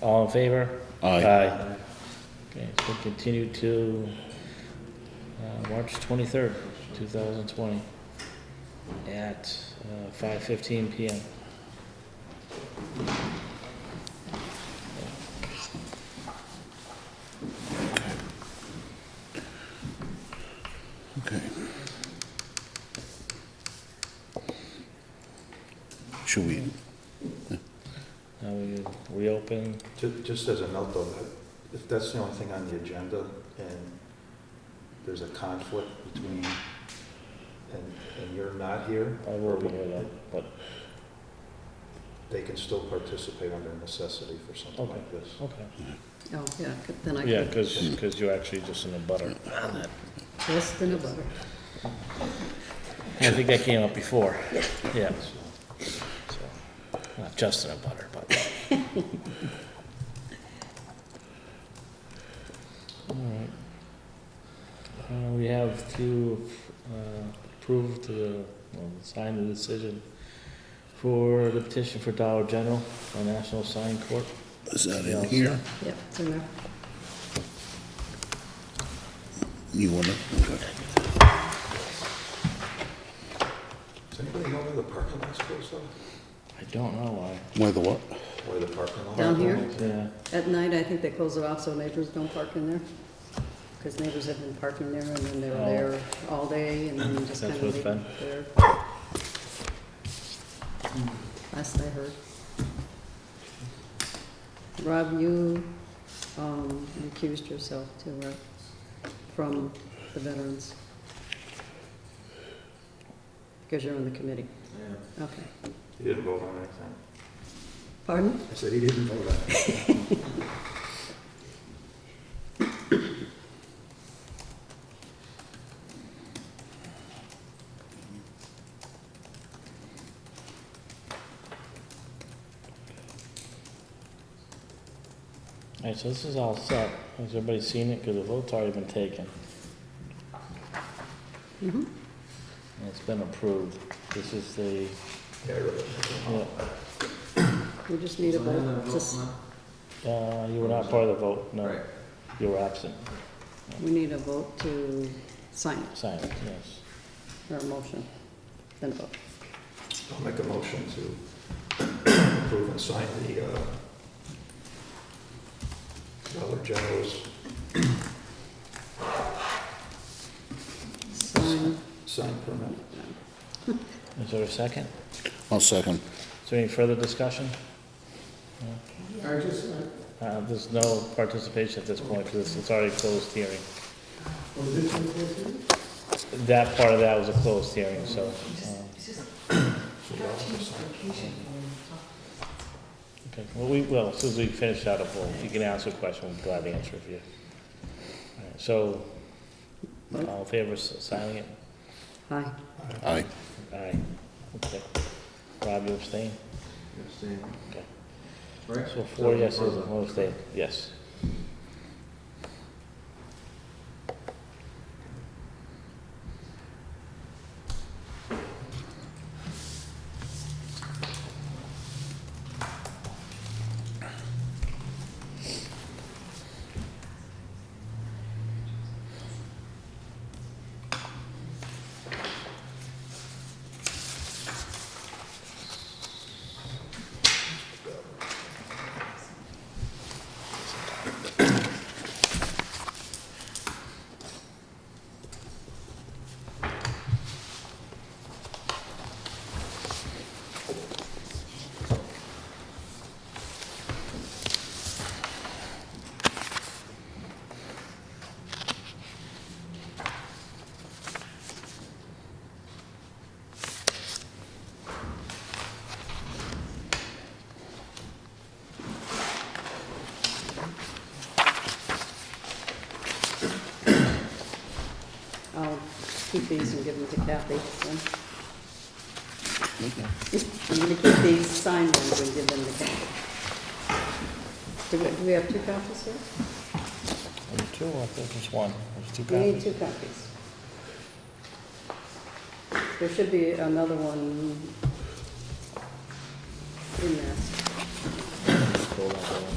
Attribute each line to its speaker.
Speaker 1: All in favor?
Speaker 2: Aye.
Speaker 1: Okay, it's been continued to, uh, March twenty-third, two thousand twenty, at, uh, five fifteen PM.
Speaker 2: Okay. Should we,
Speaker 1: Now we reopen,
Speaker 3: Ju- Just as a note, though, that if that's the only thing on the agenda, and there's a conflict between, and, and you're not here,
Speaker 1: I will be here though, but,
Speaker 3: they can still participate under necessity for something like this.
Speaker 1: okay.
Speaker 4: Oh, yeah, c- then I
Speaker 1: Yeah,
Speaker 4: could,
Speaker 1: cause, 'cause you're actually just in the butter on that.
Speaker 4: less than a butter.
Speaker 1: I think that came up before, yeah. So, Not just in a butter, but. All right. Uh, we have to, uh, approve the, well, sign the decision for the petition for Dollar General for National Sign Court.
Speaker 2: is that in here?
Speaker 4: Yep, it's in there.
Speaker 2: You want it? Okay.
Speaker 3: Does anybody know where the parking lot's supposed to be?
Speaker 1: I don't know why,
Speaker 2: Why the what?
Speaker 3: Where the parking lot?
Speaker 4: Down here?
Speaker 1: yeah,
Speaker 4: At night, I think they close it off so neighbors don't park in there. Because neighbors have been parking there and then they were
Speaker 1: Oh.
Speaker 4: there all day and then
Speaker 1: That's
Speaker 4: just kind
Speaker 1: what
Speaker 4: of
Speaker 1: it's
Speaker 4: leave
Speaker 1: been.
Speaker 4: it there. Last I heard. Rob, you, um, accused yourself too, right? From the veterans. Because you're on the committee.
Speaker 3: Yeah.
Speaker 4: Okay.
Speaker 3: He didn't vote on anything.
Speaker 4: Pardon?
Speaker 3: I said he didn't vote on it.
Speaker 1: alright, so this is all set, has everybody seen it, cause the vote's already been taken.
Speaker 4: Mm-hmm.
Speaker 1: And It's been approved. This is the,
Speaker 3: Yeah, I wrote it.
Speaker 1: yeah,
Speaker 4: We just need a vote, just,
Speaker 1: uh, you were not part of the vote, no.
Speaker 5: Right.
Speaker 1: You were absent.
Speaker 4: we need a vote to sign it,
Speaker 1: Sign it, yes.
Speaker 4: or a motion, then a vote.
Speaker 3: I'll make a motion to approve and sign the uh, Dollar General's
Speaker 4: Sign,
Speaker 3: sign permit.
Speaker 1: Is there a second?
Speaker 2: I'll second.
Speaker 1: Is there any further discussion?
Speaker 5: I just, I-
Speaker 1: Uh, There's no participation at this point because it's already closed hearing.
Speaker 5: oh, this one, this one?
Speaker 1: That part of that was a closed hearing, so. uh, Okay, well, we will, as soon as we finish that up, we'll- if you can ask a question, we'll gladly answer it for you. All right, So, all in favor of signing it?
Speaker 4: aye.
Speaker 2: Aye.
Speaker 1: Aye. Okay. Rob, you abstain?
Speaker 5: You're abstaining.
Speaker 1: Okay.
Speaker 5: Right?
Speaker 1: So four yeses and one abstain, yes.
Speaker 4: I'll keep these and give them to Kathy, then. I'm gonna keep these signed ones and give them to Kathy. Do we, do we have two copies here?
Speaker 1: Number two, I think there's one, there's two
Speaker 4: We need
Speaker 1: copies.
Speaker 4: two copies. There should be another one in there.
Speaker 1: Hold on, hold on.